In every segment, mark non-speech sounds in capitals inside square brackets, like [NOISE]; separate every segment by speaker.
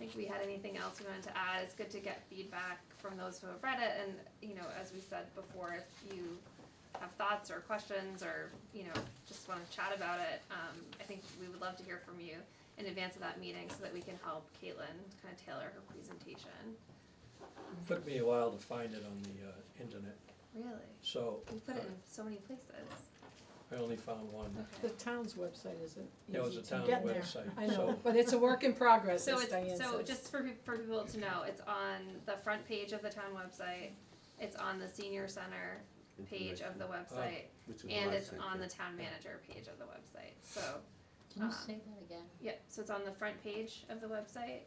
Speaker 1: if we had anything else we wanted to add, it's good to get feedback from those who have read it, and, you know, as we said before, if you have thoughts or questions, or, you know, just wanna chat about it, um, I think we would love to hear from you in advance of that meeting, so that we can help Caitlin kinda tailor her presentation.
Speaker 2: Took me a while to find it on the uh, internet,
Speaker 1: Really?
Speaker 2: so
Speaker 1: We put it in so many places.
Speaker 2: I only found one.
Speaker 1: Okay.
Speaker 3: The town's website isn't
Speaker 2: It was
Speaker 3: easy
Speaker 2: a
Speaker 3: to
Speaker 2: town
Speaker 3: get there.
Speaker 2: website,
Speaker 3: I know,
Speaker 2: so-
Speaker 3: but it's a work in progress,
Speaker 1: So
Speaker 3: as Diane
Speaker 1: it's, so
Speaker 3: says.
Speaker 1: just for, peop- for people to know, it's on the front page of the town website, it's on the senior center page of the website,
Speaker 4: Which is
Speaker 1: and
Speaker 4: what I
Speaker 1: it's
Speaker 4: sent
Speaker 1: on
Speaker 4: you.
Speaker 1: the town manager page of the website, so,
Speaker 5: Can
Speaker 1: Uh,
Speaker 5: you say that again?
Speaker 1: yeah, so it's on the front page of the website.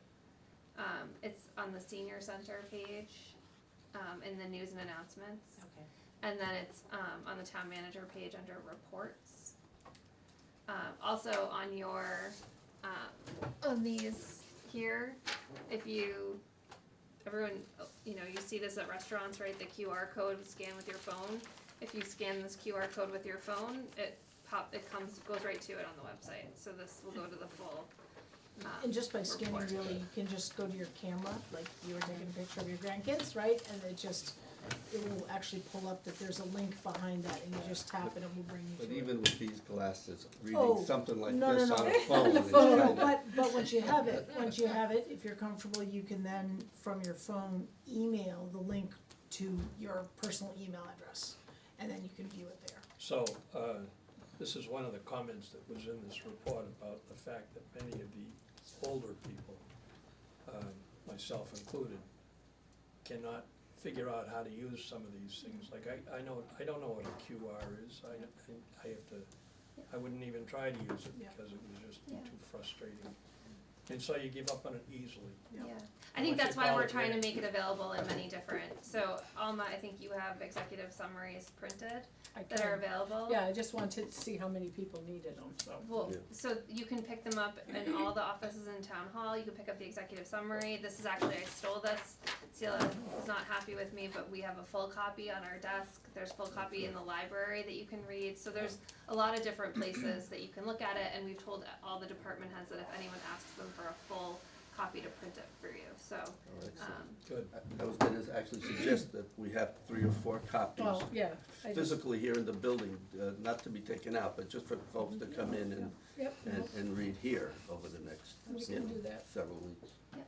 Speaker 1: Um, it's on the senior center page, um, in the news and announcements.
Speaker 5: Okay.
Speaker 1: And then it's um, on the town manager page under reports. Um, also on your, um, on these here, if you, everyone, you know, you see this at restaurants, right? The QR code scan with your phone. If you scan this QR code with your phone, it pop, it comes, goes right to it on the website. So this will go to the full. um,
Speaker 3: And just by scanning
Speaker 1: report.
Speaker 3: really, you can just go to your camera, like you were taking a picture of your grandkids, right? And it just, it will actually pull up that there's a link behind that and you just tap it and it will bring you
Speaker 4: But
Speaker 3: to it.
Speaker 4: even with these glasses,
Speaker 3: Oh,
Speaker 4: reading something like
Speaker 3: no, no,
Speaker 4: this
Speaker 3: no. [LAUGHS]
Speaker 4: on a phone
Speaker 3: No,
Speaker 4: is
Speaker 3: no, no,
Speaker 4: kinda-
Speaker 3: but, but once you have it, once you have it, if you're comfortable, you can then, from your phone, email the link to your personal email address. And then you can view it there.
Speaker 2: So, uh, this is one of the comments that was in this report about the fact that many of the older people, um, myself included, cannot figure out how to use some of these things. Like, I, I know, I don't know what a QR is, I, I have to, I wouldn't even try to use it
Speaker 3: Yeah.
Speaker 2: because it was just
Speaker 1: Yeah.
Speaker 2: too frustrating. And so you give up on it easily.
Speaker 1: Yeah,
Speaker 3: Yeah.
Speaker 1: I think
Speaker 2: Once
Speaker 1: that's
Speaker 2: you
Speaker 1: why
Speaker 2: follow
Speaker 1: we're
Speaker 2: it,
Speaker 1: trying to
Speaker 2: yeah.
Speaker 1: make it available in many different, so Alma, I think you have executive summaries printed
Speaker 3: I
Speaker 1: that are
Speaker 3: can-
Speaker 1: available.
Speaker 3: Yeah, I just wanted to see how many people needed them, so.
Speaker 1: Well,
Speaker 4: Yeah.
Speaker 1: so you can pick them up in all the offices in town hall, you can pick up the executive summary, this is actually, I stole this. Celia is not happy with me, but we have a full copy on our desk, there's full copy in the library that you can read, so there's a lot of different places that you can look at it, and we've told all the department heads that if anyone asks them for a full copy to print it for you, so,
Speaker 4: Oh, excellent.
Speaker 1: um,
Speaker 2: Good. [LAUGHS]
Speaker 4: I- I was gonna actually suggest that we have three or four copies
Speaker 3: Well, yeah, Oh, I just,
Speaker 4: physically here in the building, uh, not to be taken out, but just for folks to come in and,
Speaker 3: yep,
Speaker 4: and,
Speaker 3: no,
Speaker 4: and read here over the next,
Speaker 3: We
Speaker 4: you
Speaker 3: can
Speaker 4: know,
Speaker 3: do that.
Speaker 4: several weeks.
Speaker 1: great.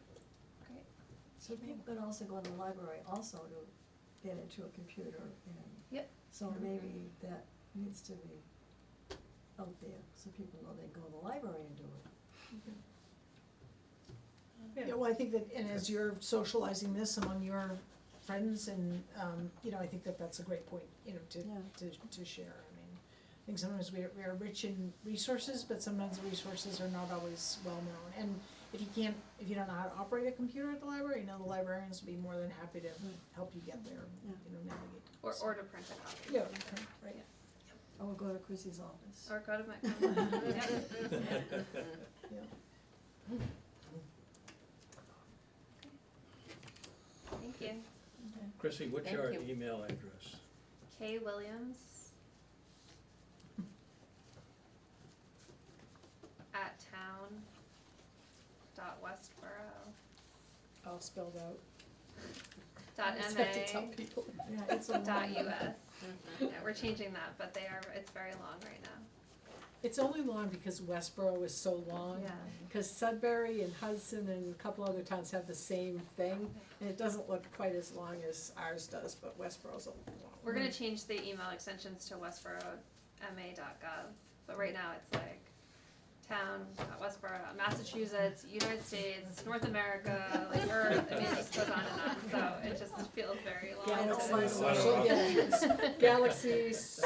Speaker 6: So people could also go in the library also to get into a computer and.
Speaker 1: Yep.
Speaker 6: So maybe that needs to be out there, so people know they go to the library and do it.
Speaker 3: yeah, well, I think that, and as you're socializing this among your friends and, um, you know, I think that that's a great point, you know, to,
Speaker 6: Yeah.
Speaker 3: to, to share, I mean. I think sometimes we are, we are rich in resources, but sometimes the resources are not always well-known, and if you can't, if you don't know how to operate a computer at the library, you know, the librarians would be more than happy to help you get there,
Speaker 6: Yeah.
Speaker 3: you know, navigate.
Speaker 1: Or, or to print a copy.
Speaker 3: Yeah, right.
Speaker 6: Or go to Chrissy's office.
Speaker 1: Or go to my. Thank you.
Speaker 2: Chrissy, what's
Speaker 5: Thank
Speaker 2: your
Speaker 5: you.
Speaker 2: email address?
Speaker 1: K Williams. At town. Dot Westboro.
Speaker 3: all spelled out.
Speaker 1: Dot
Speaker 3: I
Speaker 1: Uh, M
Speaker 3: expect to tell
Speaker 1: A.
Speaker 3: people.
Speaker 6: Yeah, it's a long
Speaker 1: Dot
Speaker 6: one.
Speaker 1: U S. Yeah, we're changing that, but they are, it's very long right now.
Speaker 3: It's only long because Westboro is so long.
Speaker 1: Yeah.
Speaker 3: Because Sudbury and Hudson and a couple other towns have the same thing, and it doesn't look quite as long as ours does, but Westboro's a long.
Speaker 1: We're gonna change the email extensions to westboro.ma.gov, but right now it's like town, dot Westboro, Massachusetts, United States, North America, like Earth, I mean, it just goes on and on, so it just feels very
Speaker 3: Yeah, I
Speaker 1: long.
Speaker 3: don't
Speaker 1: to-
Speaker 3: find
Speaker 2: It's a lot of
Speaker 3: social
Speaker 2: options.
Speaker 3: gatherings.
Speaker 1: [LAUGHS]
Speaker 3: Galaxies.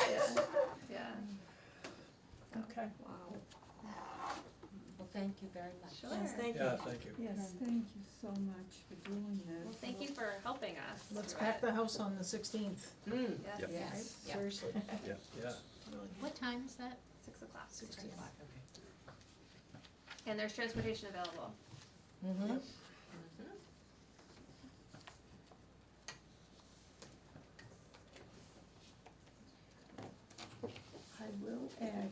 Speaker 1: Yeah,
Speaker 3: Okay.
Speaker 6: Wow.
Speaker 5: Well, thank you very much.
Speaker 1: sure.
Speaker 6: Yes, thank you.
Speaker 2: Yeah, thank you.
Speaker 7: Yes, thank you so much for doing this.
Speaker 1: Well, thank you for helping us.
Speaker 3: Let's
Speaker 1: through
Speaker 3: pack
Speaker 1: it.
Speaker 3: the house on the sixteenth,
Speaker 5: Mm,
Speaker 1: Yes,
Speaker 4: Yep.
Speaker 5: yes, yeah.
Speaker 3: seriously.
Speaker 4: Yeah.
Speaker 2: Yeah.
Speaker 5: What time is that?
Speaker 1: six o'clock.
Speaker 3: Six
Speaker 5: Three
Speaker 3: o'clock.
Speaker 5: okay.
Speaker 1: And there's transportation available.
Speaker 5: Mm-hmm.
Speaker 7: I will add